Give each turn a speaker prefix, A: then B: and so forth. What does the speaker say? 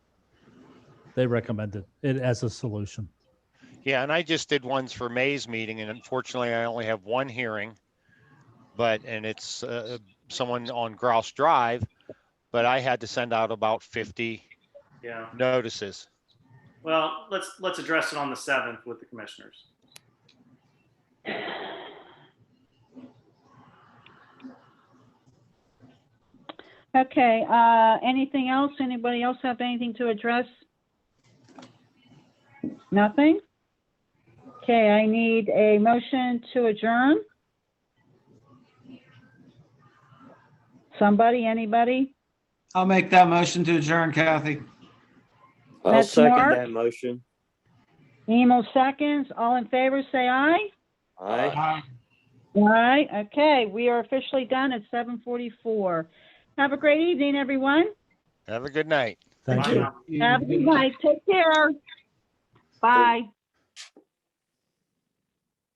A: They recommended it as a solution.
B: Yeah, and I just did ones for May's meeting, and unfortunately, I only have one hearing. But, and it's uh, someone on Grouse Drive, but I had to send out about 50
C: Yeah,
B: notices.
C: well, let's, let's address it on the seventh with the commissioners.
D: Okay, uh, anything else? Anybody else have anything to address? Nothing? Okay, I need a motion to adjourn. Somebody, anybody?
E: I'll make that motion to adjourn, Kathy.
F: I'll
D: That's
F: second
D: Mark.
F: that motion.
D: Emo seconds, all in favor, say aye.
F: Aye.
E: Aye.
D: Aye, okay, we are officially done at seven forty-four. Have a great evening, everyone.
B: Have a good night.
A: Thank
C: Bye
A: you.
C: now.
D: Have a good night, take care. Bye.